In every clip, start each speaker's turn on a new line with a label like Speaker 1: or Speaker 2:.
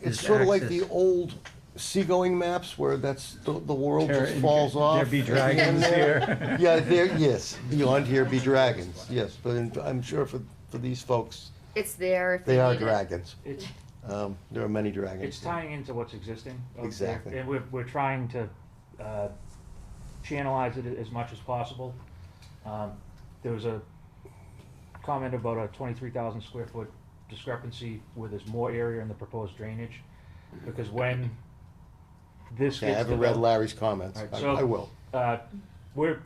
Speaker 1: It's
Speaker 2: is
Speaker 1: sort of like the
Speaker 2: access.
Speaker 1: old seagoing maps where that's, the, the world
Speaker 2: There-
Speaker 1: just falls off.
Speaker 2: There be dragons here.
Speaker 1: Yeah, there, yes, beyond here be dragons, yes, but in- I'm sure for, for these folks,
Speaker 3: It's there if
Speaker 1: they are
Speaker 3: need it.
Speaker 1: dragons.
Speaker 4: It's,
Speaker 1: Um, there are many dragons.
Speaker 4: it's tying into what's existing. out there,
Speaker 1: Exactly.
Speaker 4: And we're, we're trying to, uh, channelize it as much as possible. Um, there was a comment about a twenty-three thousand square foot discrepancy where there's more area in the proposed drainage. Because when this
Speaker 1: Okay, I
Speaker 4: gets
Speaker 1: haven't read
Speaker 4: developed-
Speaker 1: Larry's comments,
Speaker 4: All right,
Speaker 1: I
Speaker 4: so-
Speaker 1: I will.
Speaker 4: uh, we're,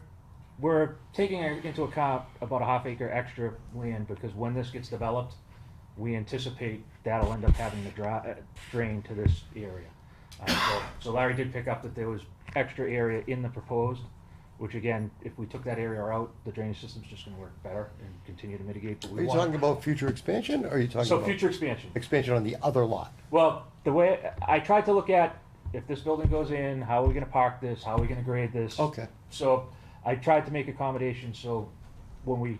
Speaker 4: we're taking into account about a half acre extra land, because when this gets developed, we anticipate that'll end up having to dra- uh, drain to this area. Uh, so- So Larry did pick up that there was extra area in the proposed, which again, if we took that area out, the drainage system's just gonna work better and continue to mitigate what
Speaker 1: Are
Speaker 4: we
Speaker 1: you
Speaker 4: want.
Speaker 1: talking about future expansion, or are you talking
Speaker 4: So
Speaker 1: about
Speaker 4: future expansion.
Speaker 1: expansion on the other lot?
Speaker 4: Well, the way, I tried to look at, if this building goes in, how are we gonna park this, how are we gonna grade this?
Speaker 1: Okay.
Speaker 4: So I tried to make accommodations, so when we,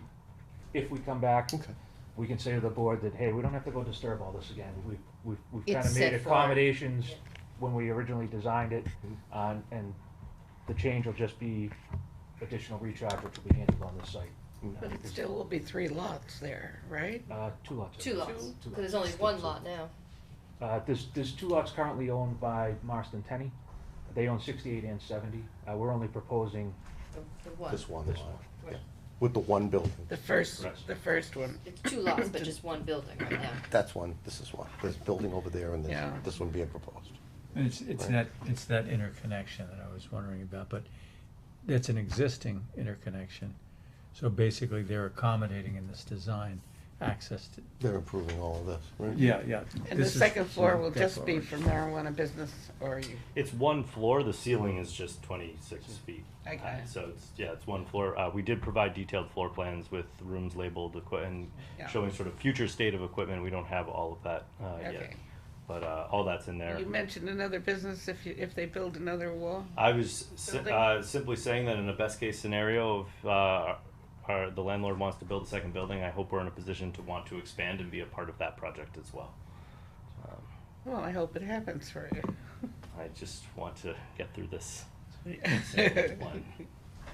Speaker 4: if we come back,
Speaker 1: Okay.
Speaker 4: we can say to the board that, hey, we don't have to go disturb all this again. We've, we've, we've
Speaker 3: It's
Speaker 4: kind of
Speaker 3: set
Speaker 4: made
Speaker 3: for-
Speaker 4: accommodations when we originally designed it, uh, and the change will just be additional recharge, which will be handled on this site.
Speaker 5: But it still will be three lots there, right?
Speaker 4: Uh, two lots.
Speaker 3: Two lots,
Speaker 4: Two
Speaker 3: because there's only one lot now.
Speaker 4: Uh, there's, there's two lots currently owned by Marston Tenney. They own sixty-eight and seventy. Uh, we're only proposing,
Speaker 3: The the one.
Speaker 1: This one
Speaker 4: This
Speaker 1: lot,
Speaker 3: one.
Speaker 1: yeah, with the one building.
Speaker 5: The first,
Speaker 4: Right.
Speaker 5: the first one.
Speaker 3: It's two lots, but just one building right now.
Speaker 1: That's one, this is one, this building over there and this,
Speaker 5: Yeah.
Speaker 1: this one being proposed.
Speaker 2: It's, it's
Speaker 1: Right.
Speaker 2: that, it's that interconnection that I was wondering about, but that's an existing interconnection. So basically, they're accommodating in this design access to.
Speaker 1: They're improving all of this, right?
Speaker 2: yeah.
Speaker 5: And the second floor will just be
Speaker 2: for
Speaker 5: for marijuana business or you,
Speaker 6: It's one floor. The ceiling is just 26 feet.
Speaker 5: Okay.
Speaker 6: high. So it's yeah, it's one floor. Uh, we did provide detailed floor plans with rooms labeled equi- and
Speaker 5: Yeah.
Speaker 6: showing sort of future state of equipment. We don't have all of that uh, yet,
Speaker 5: okay.
Speaker 6: but uh, all that's in there.
Speaker 5: You mentioned another business if you, if they build another wall?
Speaker 6: I was si-
Speaker 5: Building.
Speaker 6: uh, simply saying that in the best case scenario, if uh, our, the landlord wants to build a second building, I hope we're in a position to want to expand and be a part of that project as well.
Speaker 5: Well, I hope it happens for
Speaker 6: I just want to get through this.
Speaker 5: you.
Speaker 6: one.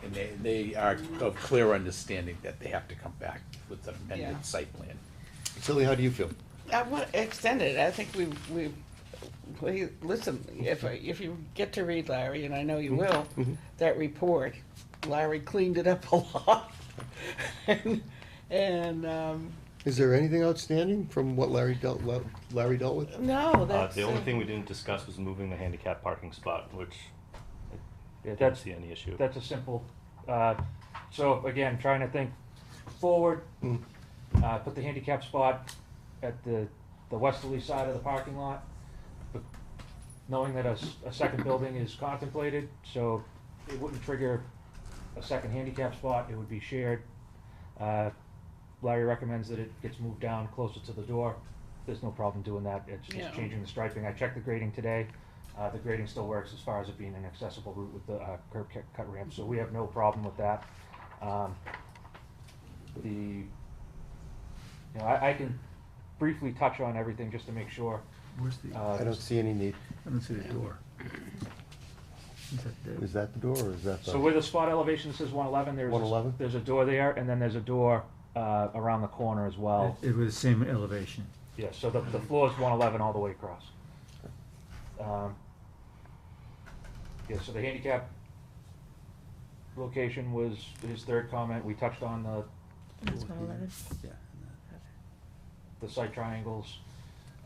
Speaker 7: And they, they are of clear understanding that they have to come back with an
Speaker 5: Yeah.
Speaker 7: amended site plan.
Speaker 1: Tilly, how do you feel?
Speaker 5: I want to extend it. I think we, we, we, listen, if, I- if you get to read Larry, and I know you will, that report, Larry cleaned it up a lot. And, and, um,
Speaker 1: Is there anything outstanding from what Larry dealt, Larry dealt with?
Speaker 5: no,
Speaker 6: Uh,
Speaker 5: that's.
Speaker 6: the only
Speaker 5: uh,
Speaker 6: thing we didn't discuss was moving the handicap parking spot, which
Speaker 4: yeah,
Speaker 6: I don't
Speaker 4: that's,
Speaker 6: see any issue.
Speaker 4: that's a simple, uh, so again, trying to think forward. Uh, put the handicap spot at the, the westerly side of the parking lot, but knowing that a, s- a second building is contemplated, so it wouldn't trigger a second handicap spot, it would be shared. Uh, Larry recommends that it gets moved down closer to the door, there's no problem doing that, it's
Speaker 5: Yeah.
Speaker 4: just changing the striping, I checked the grading today. Uh, the grading still works as far as it being an accessible route with the, uh, curb cut- cut ramp, so we have no problem with that. Um, the, you know, I, I can briefly touch on everything just to make sure.
Speaker 2: Where's the, I
Speaker 4: Uh,
Speaker 1: I don't see any need.
Speaker 2: don't see the door. Is that the-
Speaker 1: Is that the door or is that the?
Speaker 4: So where the spot elevation says one eleven, there's,
Speaker 1: 111?
Speaker 4: there's a door there, and then there's a door, uh, around the corner as well.
Speaker 2: It it was the same elevation.
Speaker 4: Yeah, so the, the floor is one eleven all the way across. Um, Yeah, so the handicap location was his third comment, we touched on the,
Speaker 5: uh,
Speaker 2: Yeah.
Speaker 4: the site triangles.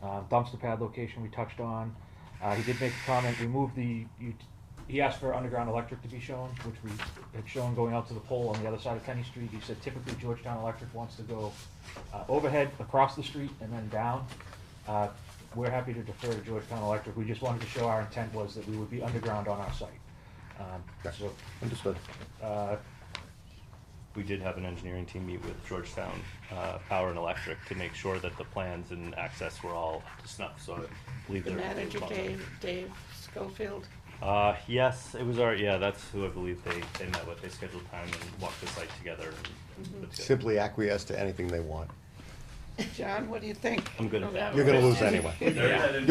Speaker 4: Uh, dumpster pad location we touched on, uh, he did make a comment, we moved the, you, he asked for underground electric to be shown, which we had shown going out to the pole on the other side of Kenny Street, he said typically Georgetown Electric wants to go, uh, overhead, across the street, and then down. Uh, We're happy to defer to Georgetown Electric, we just wanted to show our intent was that we would be underground on our site. Um, so,
Speaker 1: Understood.
Speaker 4: uh,
Speaker 6: We did have an engineering team meet with Georgetown uh, Power and Electric to make sure that the plans and access were all up to snuff, so I believe
Speaker 5: The
Speaker 6: they're.
Speaker 5: manager, Dave, Dave Schofield,
Speaker 6: Uh, yes, it was our, yeah, that's who I believe they, they met with, they scheduled time and walked the site together.
Speaker 5: Mm-hmm.
Speaker 6: and put together-
Speaker 1: Simply acquiesce to anything they want.
Speaker 5: John, what do you think?
Speaker 6: I'm good at that.
Speaker 1: You're gonna lose anyway.